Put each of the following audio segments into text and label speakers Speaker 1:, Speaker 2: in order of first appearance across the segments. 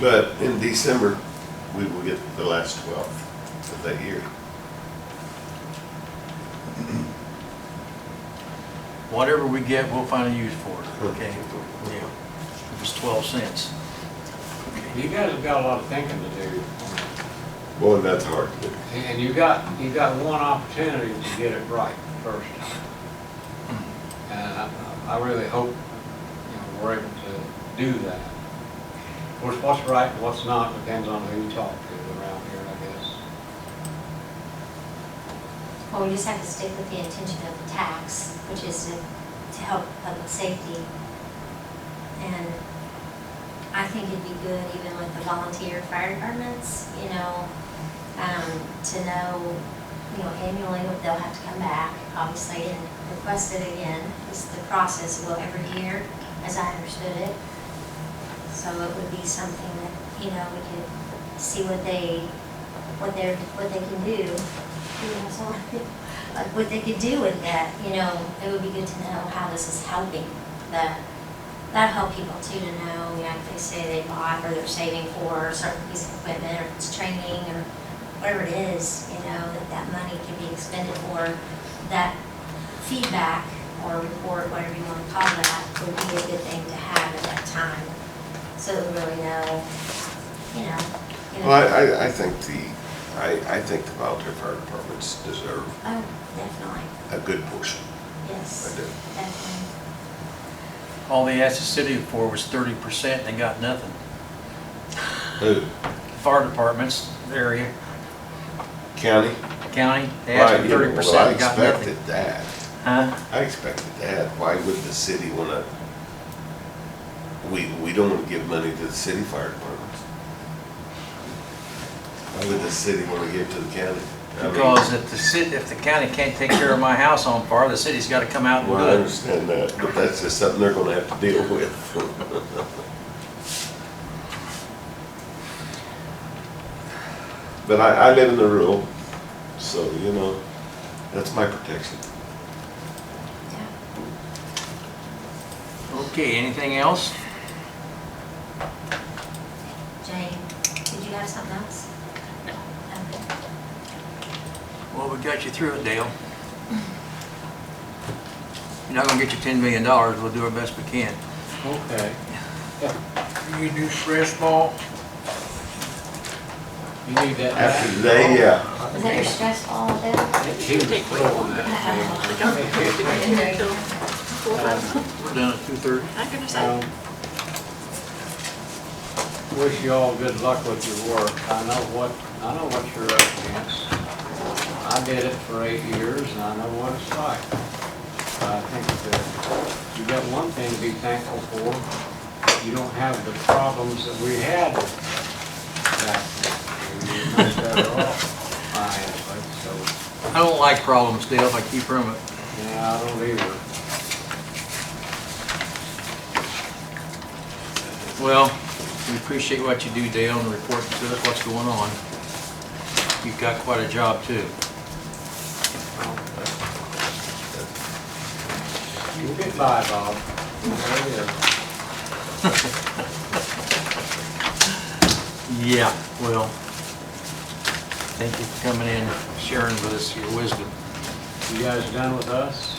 Speaker 1: But in December, we will get the last twelfth of that year.
Speaker 2: Whatever we get, we'll find a use for it, okay? Yeah, it was twelve cents.
Speaker 3: You guys have got a lot of thinking to do,
Speaker 1: Boy, that's hard.
Speaker 3: and you got, you got one opportunity to get it right first time. And I, I really hope, you know, we're able to do that. Of course, what's right and what's not depends on who you talk to around here, I guess.
Speaker 4: Well, we just have to stick with the intention of the tax, which is to, to help public safety. And I think it'd be good even with the volunteer fire departments, you know, um, to know, you know, annually what they'll have to come back, obviously, and request it again. It's the process will every year, as I understood it. So it would be something that, you know, we could see what they, what they're, what they can do. You know, so, Like what they could do with that, you know, it would be good to know how this is helping that. That'll help people too to know, like they say they bought or they're saving for a certain piece of equipment or it's training or whatever it is, you know, that that money can be expended for that feedback or report, whatever you want to call that, would be a good thing to have at that time. So that we really know, you know. you know-
Speaker 1: Well, I, I, I think the, I, I think the volunteer fire departments deserve
Speaker 4: Oh, definitely,
Speaker 1: a good portion. I
Speaker 4: yes,
Speaker 1: do.
Speaker 4: definitely.
Speaker 2: All they asked the city for was thirty percent, and they got nothing.
Speaker 1: Who?
Speaker 2: Fire departments, area,
Speaker 1: County?
Speaker 2: county, they asked for
Speaker 1: Right, yeah,
Speaker 2: thirty
Speaker 1: well, I
Speaker 2: percent, they got nothing.
Speaker 1: expected that.
Speaker 2: Huh?
Speaker 1: I expected that. Why would the city wanna? We, we don't wanna give money to the city fire departments. Why would the city wanna give to the county? I mean,
Speaker 2: Because if the city, if the county can't take care of my house on fire, the city's gotta come out and
Speaker 1: Well, I
Speaker 2: do it.
Speaker 1: understand that, but that's just something they're gonna have to deal with. But I, I live in the rural, so, you know, that's my protection.
Speaker 4: Yeah.
Speaker 2: Okay, anything else?
Speaker 4: Jane, did you have something else? No. Okay.
Speaker 2: Well, we got you through it, Dale. You're not gonna get your ten million dollars, we'll do our best we can.
Speaker 3: Okay.
Speaker 5: You do stress ball?
Speaker 3: You need that.
Speaker 1: After today, yeah.
Speaker 4: Is that your stress all day?
Speaker 3: He was throwing that.
Speaker 2: We're done at two thirty.
Speaker 6: I'm gonna say.
Speaker 3: Um, Wish you all good luck with your work. I know what, I know what you're up against. I did it for eight years and I know what it's like. I think that you got one thing to be thankful for. You don't have the problems that we had back then. You're much better off, honestly, so.
Speaker 2: I don't like problems, Dale, if I keep from it.
Speaker 3: Yeah, I don't either.
Speaker 2: Well, we appreciate what you do, Dale, and reporting to us what's going on. You've got quite a job, too.
Speaker 3: You'll get by, Bob. There you go.
Speaker 2: Yeah, well, thank you for coming in, sharing with us your wisdom.
Speaker 3: You guys done with us?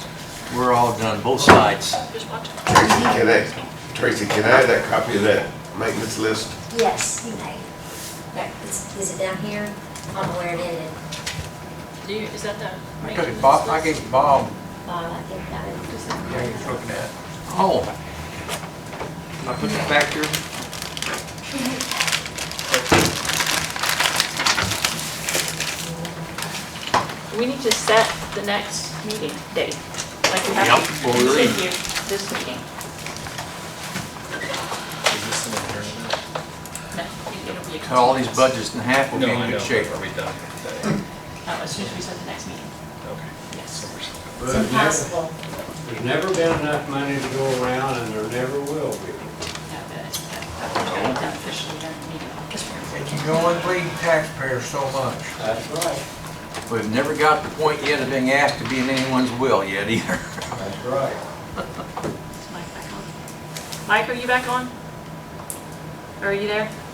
Speaker 2: We're all done, both sides.
Speaker 6: Just watch.
Speaker 1: Tracy, can I, Tracy, can I have that copy of that maintenance list?
Speaker 4: Yes, you may. Right, Is is it down here? I don't know where it ended.
Speaker 6: Do you, is that the?
Speaker 5: I took it, Bob, I gave it Bob,
Speaker 4: Uh, I think that it
Speaker 6: Is
Speaker 5: yeah,
Speaker 6: that-
Speaker 5: he's looking at. it.
Speaker 2: Oh. I put it back there.
Speaker 6: We need to set the next meeting date, like we
Speaker 2: Yep,
Speaker 6: have to
Speaker 2: well, we're in.
Speaker 6: continue this meeting. No, it- it'll be a
Speaker 2: Cut all these
Speaker 6: continuance.
Speaker 2: budgets in half, we'll be in good shape.
Speaker 7: Are we done today?
Speaker 6: No, Oh, as soon as we set the next meeting,
Speaker 7: Okay.
Speaker 6: yes.
Speaker 7: So we're still-
Speaker 4: it's
Speaker 3: There's never-
Speaker 4: impossible.
Speaker 3: There's never been enough money to go around, and there never will be.
Speaker 6: No, but I think that- that we've got it done officially during the meeting, because we're.
Speaker 5: You can only bleed taxpayers so much.
Speaker 3: That's right.
Speaker 2: We've never got to the point yet of being asked to be in anyone's will yet either.
Speaker 3: That's right.
Speaker 6: Mike back on? Mike, are you back on? Or Are you there?